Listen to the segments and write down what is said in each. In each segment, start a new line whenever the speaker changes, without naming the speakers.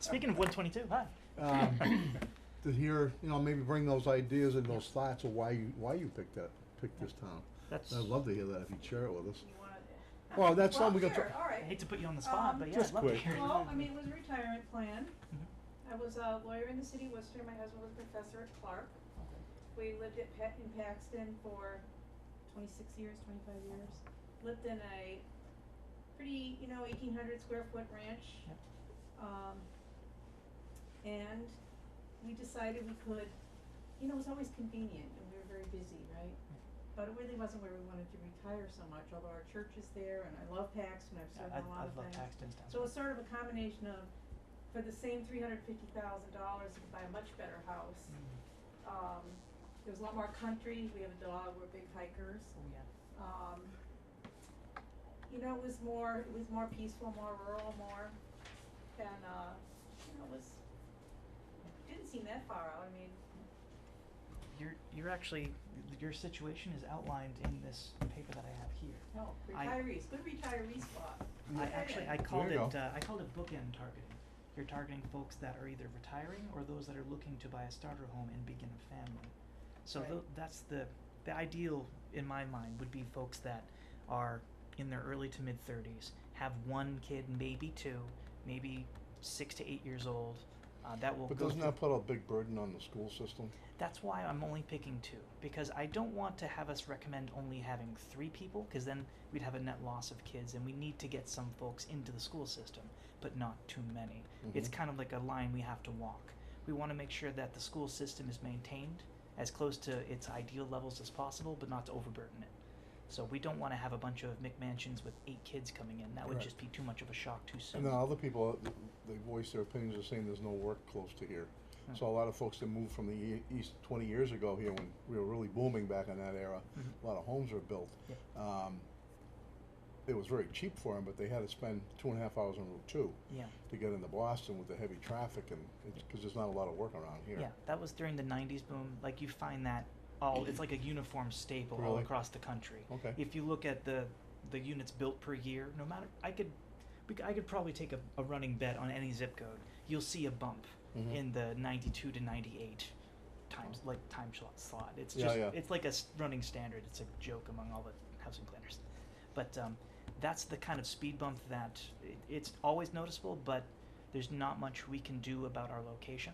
Speaking of 122, hi.
um, to hear, you know, maybe bring those ideas and those thoughts of why you, why you picked that, picked this town.
That's.
I'd love to hear that if you'd share it with us.
You wanted it.
Well, that's
Well,
something we got
sure,
to-
all
I hate
right.
to put you on the spot,
Um,
but yeah,
Just
I'd love to
quick.
hear. it.
Well, I mean, it was a retirement plan.
Mhm.
I was a lawyer in the city of Worcester. My husband was a professor at Clark. We lived at Pa- in Paxton for twenty-six years, twenty-five years. Lived in a pretty, you know, eighteen hundred square foot ranch.
Yep.
Um, and we decided we could, you know, it was always convenient and we were very busy, right? But it really wasn't where we wanted to retire so much, although our church is there and I love Paxton. I've
Yeah,
served
I,
on a
I
lot of things.
love Paxton's
So
downtown.
it's sort of a combination of, for the same three hundred fifty thousand dollars, you can buy a much better house.
Mm.
Um, there's a lot more country, we have a dog, we're big hikers,
Oh, yeah.
um, you know, it was more, it was more peaceful, more rural, more than, uh, you know, it was, it didn't seem that far out, I mean,
You're, you're actually, your situation is outlined in this paper that I have here.
no,
I-
retirees, good retiree spot.
I
Yeah.
actually, I
There
called it,
you go.
uh, I called it bookend targeting. You're targeting folks that are either retiring or those that are looking to buy a starter home and begin a family. So
Right.
tho- that's the, the ideal in my mind would be folks that are in their early to mid thirties, have one kid, maybe two, maybe six to eight years old. Uh, that will
But
go
doesn't
through-
that put a big burden on the school system?
that's why I'm only picking two because I don't want to have us recommend only having three people because then we'd have a net loss of kids and we need to get some folks into the school system, but not too many. It's
Mhm.
kind of like a line we have to walk. We want to make sure that the school system is maintained as close to its ideal levels as possible, but not to overburden it. So we don't want to have a bunch of McMansions with eight kids coming in. That would
Right.
just be too much of a shock too soon.
And then other people, uh, they voice their opinions of saying there's no work close to here.
Mm.
So a lot of folks that moved from the e- east twenty years ago here, when we were really booming back in that era,
Mhm.
a lot of homes were built.
Yep.
Um, it was very cheap for them, but they had to spend two and a half hours on Route Two
Yeah.
to get into Boston with the heavy traffic and, because there's not a lot of work around here.
Yeah, that was during the '90s boom. Like you find that all it's like a uniform staple all
Really?
across the country.
Okay.
If you look at the the units built per year, no matter I could we, c- I could probably take a, a running bet on any zip code. You'll see a bump
Mhm.
in the 92 to 98 times like time slot slot. It's
Yeah,
just
yeah.
it's like a s- running standard. It's a joke among all the housing planners. But um, that's the kind of speed bump that it, it's always noticeable, but there's not much we can do about our location.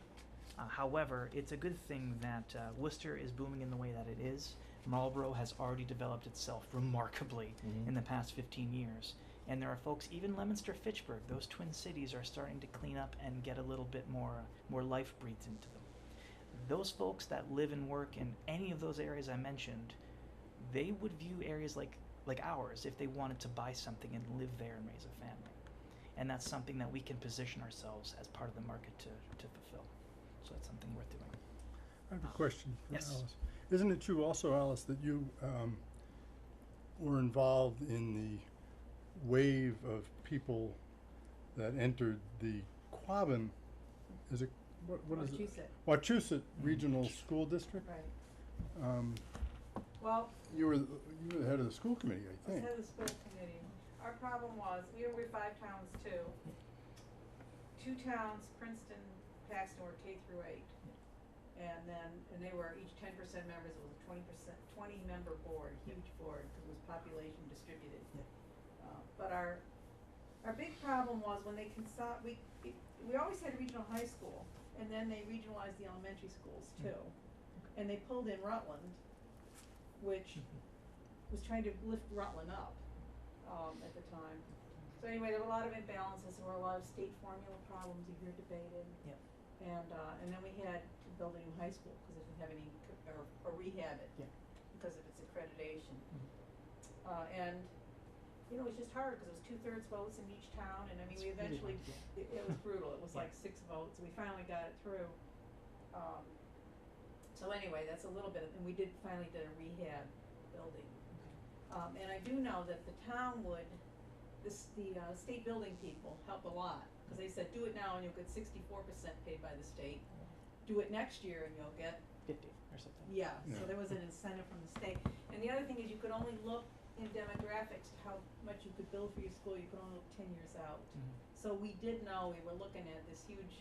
Uh, however, it's a good thing that uh, Worcester is booming in the way that it is. Marlborough has already developed itself remarkably
Mhm.
in the past 15 years. And there are folks, even Leominster, Fitchburg, those twin cities are starting to clean up and get a little bit more, more life breathed into them. Those folks that live and work in any of those areas I mentioned, they would view areas like, like ours if they wanted to buy something and live there and raise a family. And that's something that we can position ourselves as part of the market to, to fulfill. So that's something worth doing.
I have
Uh,
a question for
yes.
Alice. Isn't it true also, Alice, that you um, were involved in the wave of people that entered the Quabbin, is it, what, what is it?
Wachusett,
Wachusett Regional School District?
right.
Um,
Well,
you were, the- you were the head of the school committee, I
I was
think.
head of the school committee. Our problem was, we were, we were five towns too. Two towns, Princeton, Paxton were K through eight. And then, and they were each ten percent members, it was a twenty percent, twenty member board, huge board, 'cause it was population distributed. Uh, but our, our big problem was when they consol, we, it- we always had regional high school, and then they regionalized the elementary schools
Mm.
too. And they pulled in Rutland, which was trying to lift Rutland up, um, at the time. So anyway, there were a lot of imbalances, there were a lot of state formula problems you hear debated.
Yep.
And, uh, and then we had to build a new high school, cause it didn't have any, c- or, or rehab it.
Yeah. Mm-hmm.
Because of its accreditation. Uh, and, you know, it was just hard, cause it was two-thirds votes in each town, and I mean,
It's
we
really
eventually,
hard,
it, it was brutal, it was
Yeah.
like six votes, we finally got it through. Um, so anyway, that's a little bit, and we did, finally did a rehab building. Um, and I do know that the town would, this, the, uh, state building people help a lot, cause they said, do it now and you'll get sixty-four percent paid by the state. Do it next year and you'll get,
50 or something.
yeah, so
Yeah.
there was an incentive from the state. And the other thing is you could only look in demographics to how much you could build for your school, you could only look ten years out.
Mhm.
So we did know, we were looking at this huge